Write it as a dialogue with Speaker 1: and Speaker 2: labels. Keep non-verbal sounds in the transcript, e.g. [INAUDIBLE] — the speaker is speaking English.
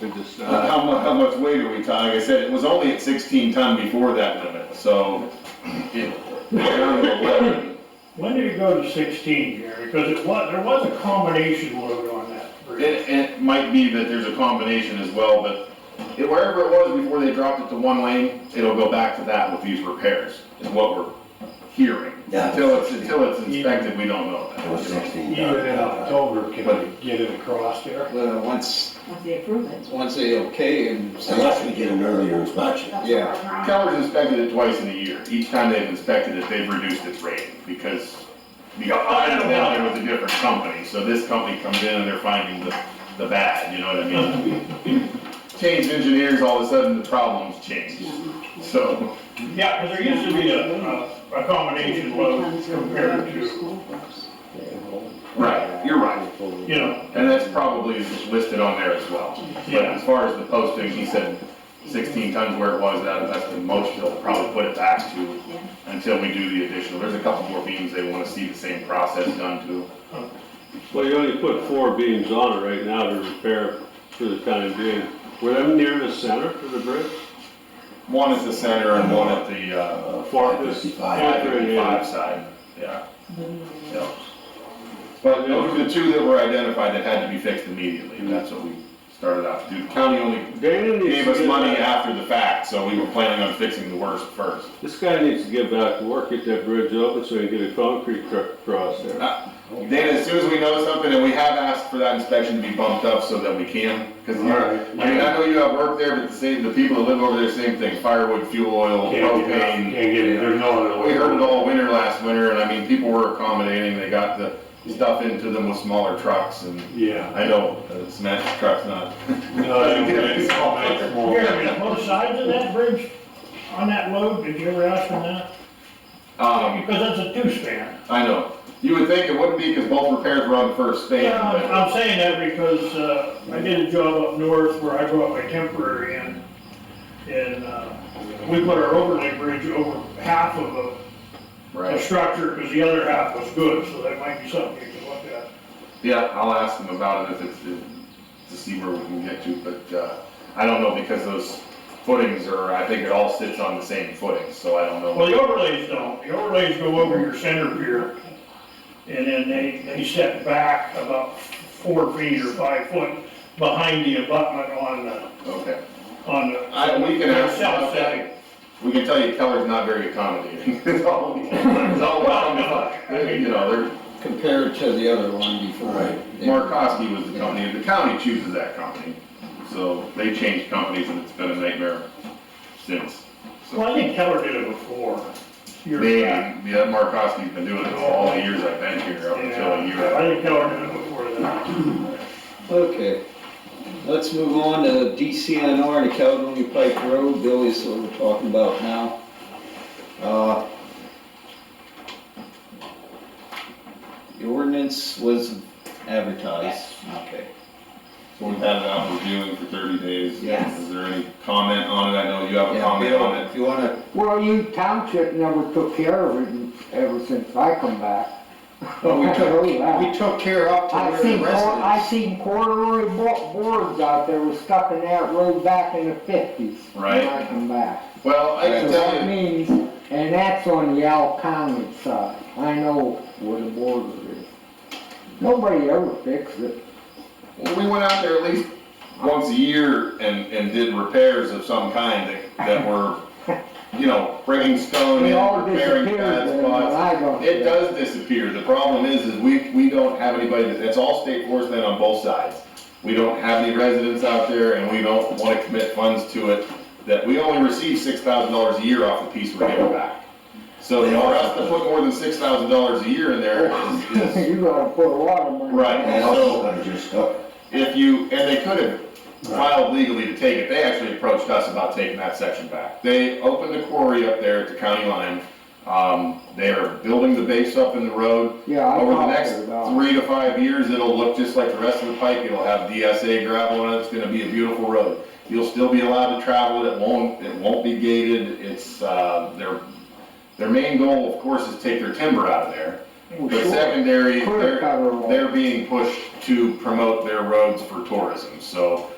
Speaker 1: to just,
Speaker 2: Uh,
Speaker 1: uh,
Speaker 2: How mu, how much weight are we talking? Like I said, it was only at sixteen ton before that limit, so it, down to eleven.
Speaker 3: When did it go to sixteen here? Because it was, there was a combination load on that
Speaker 2: It,
Speaker 3: bridge.
Speaker 2: it might be that there's a combination as well, but it- wherever it was before they dropped it to one lane, it'll go back to that with these repairs, is what we're hearing.
Speaker 4: Yeah.
Speaker 2: Until it's, until it's inspected, we don't know
Speaker 4: It was uh,
Speaker 2: that.
Speaker 4: sixteen.
Speaker 3: Even in October, can we get it across there?
Speaker 5: Well, once,
Speaker 6: Once they approve it.
Speaker 5: once they okay and.
Speaker 4: Unless we get an earlier inspection.
Speaker 6: that's
Speaker 5: Yeah.
Speaker 6: what we're on.
Speaker 2: Keller's inspected it twice in a year. Each time they've inspected it, they've reduced its rate because the [LAUGHS] item down there was a different company. So this company comes in and they're finding the, the bad, you know what I mean? Change engineers, all of a sudden the problems change. So,
Speaker 3: Yeah, because there used to be a, a a combination load compared to,
Speaker 2: right, you're right.
Speaker 3: you know,
Speaker 2: And that's probably listed on there as well. But
Speaker 3: Yeah.
Speaker 2: as far as the posting, he said sixteen tons where it was, that, that's the most they'll probably put it back to
Speaker 6: Yeah.
Speaker 2: until we do the additional. There's a couple more beams they wanna see the same process done to.
Speaker 1: well, you only put four beams on it right now to repair for the time being. Were them near the center for the bridge?
Speaker 2: One at the center and one at the, uh,
Speaker 1: Four
Speaker 4: Fifty-five.
Speaker 1: Yeah.
Speaker 2: five side, yeah. Yeah. But those were the two that were identified that had to be fixed immediately, and that's what we started out to do. The county only
Speaker 1: Dana needs to
Speaker 2: gave us
Speaker 1: get
Speaker 2: money
Speaker 1: back-
Speaker 2: after the fact, so we were planning on fixing the worst first.
Speaker 1: This guy needs to get back to work, get that bridge open so he can get a concrete truck across there.
Speaker 2: Uh, Dana, as soon as we know something, and we have asked for that inspection to be bumped up so that we can, because, I mean, I know you have work there, but the same, the people that live over there, same thing, firewood, fuel oil,
Speaker 3: can't get,
Speaker 2: propane.
Speaker 3: can't get it, there's no other way.
Speaker 2: We heard it all winter last winter, and I mean, people were accommodating, they got the stuff into them with smaller trucks, and
Speaker 3: Yeah.
Speaker 2: I know, the smash truck's not.
Speaker 3: Gary, both sides of that bridge, on that load, did you ever ask them that?
Speaker 2: [LAUGHS] Um,
Speaker 3: Because that's a two-span.
Speaker 2: I know, you would think it wouldn't be, because both repairs were on the first span,
Speaker 3: Yeah, I'm
Speaker 2: but,
Speaker 3: I'm saying that because, uh, I did a job up north where I brought my temporary in. And, uh, we put our overlay bridge over half of a a
Speaker 2: right,
Speaker 3: structure, because the other half was good, so that might be something you can look at.
Speaker 2: yeah, I'll ask them about it if it's, if- to see where we can get to, but, uh, I don't know, because those footings are, I think it all sits on the same footing, so I don't
Speaker 3: Well,
Speaker 2: know.
Speaker 3: the overlays don't, the overlays go over your center pier, and then they, they set back about four feet or five foot behind the abutment on the,
Speaker 2: Okay,
Speaker 3: on the.
Speaker 2: I, we can ask them
Speaker 3: South
Speaker 2: about that.
Speaker 3: side.
Speaker 2: We can tell you Keller's not very accommodating. [LAUGHS] It's all, it's all about them. You know,
Speaker 5: Compared to the other one before.
Speaker 4: Right.
Speaker 2: they're, Markowski was the company, the county chooses that company. So they changed companies and it's been a nightmare since.
Speaker 3: Well, I think Keller did it before. years
Speaker 2: They,
Speaker 3: back.
Speaker 2: yeah, Markowski's been doing it all the years I've been here, up until a
Speaker 3: Yeah, I
Speaker 2: year.
Speaker 3: think Keller did it before that.
Speaker 5: Okay, let's move on to DCNR and the Caledonia Pike Road, Billy's what we're talking about now. Uh, The ordinance was advertised, okay.
Speaker 2: So we've had it out reviewing for thirty days.
Speaker 6: Yes.
Speaker 2: Is there any comment on it? I know you have a
Speaker 5: Yeah,
Speaker 2: comment
Speaker 5: Bill,
Speaker 2: on it.
Speaker 5: If you wanna,
Speaker 7: Well, you township never took care of it in- ever since I come back.
Speaker 5: Oh, we
Speaker 7: [LAUGHS] I
Speaker 5: took-
Speaker 7: know that.
Speaker 5: we took care up to
Speaker 7: I
Speaker 5: where the
Speaker 7: seen, cor- I
Speaker 5: residents.
Speaker 7: seen corduroy bo- boards out there was stuck in that road back in the fifties.
Speaker 2: Right.
Speaker 7: When I come back.
Speaker 2: Well, I
Speaker 7: So
Speaker 2: can tell
Speaker 7: that
Speaker 2: you,
Speaker 7: means, and that's on the Al County side. I know where the border is. Nobody ever fixed it.
Speaker 2: Well, we went out there at least once a year and, and did repairs of some kind that, that were, you know, bringing stone
Speaker 7: They all
Speaker 2: in, repairing
Speaker 7: disappeared
Speaker 2: bad
Speaker 7: then when
Speaker 2: spots.
Speaker 7: I got
Speaker 2: It
Speaker 7: there.
Speaker 2: does disappear. The problem is, is we, we don't have anybody, that- it's all state forest land on both sides. We don't have any residents out there and we don't wanna commit funds to it, that we only receive six thousand dollars a year off the piece we're giving back. So for us to put more than six thousand dollars a year in there
Speaker 7: [LAUGHS]
Speaker 2: is, is,
Speaker 7: You gotta put a lot of money.
Speaker 2: right,
Speaker 4: And
Speaker 2: so.
Speaker 4: also, I just uh, stuck.
Speaker 2: If you, and they could have filed legally to take it, they actually approached us about taking that section back. They opened a quarry up there at the county line, um, they are building the base up in the road.
Speaker 7: Yeah, I
Speaker 2: Over the
Speaker 7: talked
Speaker 2: next
Speaker 7: to her about it.
Speaker 2: three to five years, it'll look just like the rest of the pike, it'll have DSA gravel in it, it's gonna be a beautiful road. You'll still be allowed to travel it, it won't, it won't be gated, it's, uh, their, their main goal, of course, is take their timber out of there.
Speaker 7: Well,
Speaker 2: But
Speaker 7: sure.
Speaker 2: secondary,
Speaker 7: Clear
Speaker 2: they're,
Speaker 7: cover wall.
Speaker 2: they're being pushed to promote their roads for tourism, so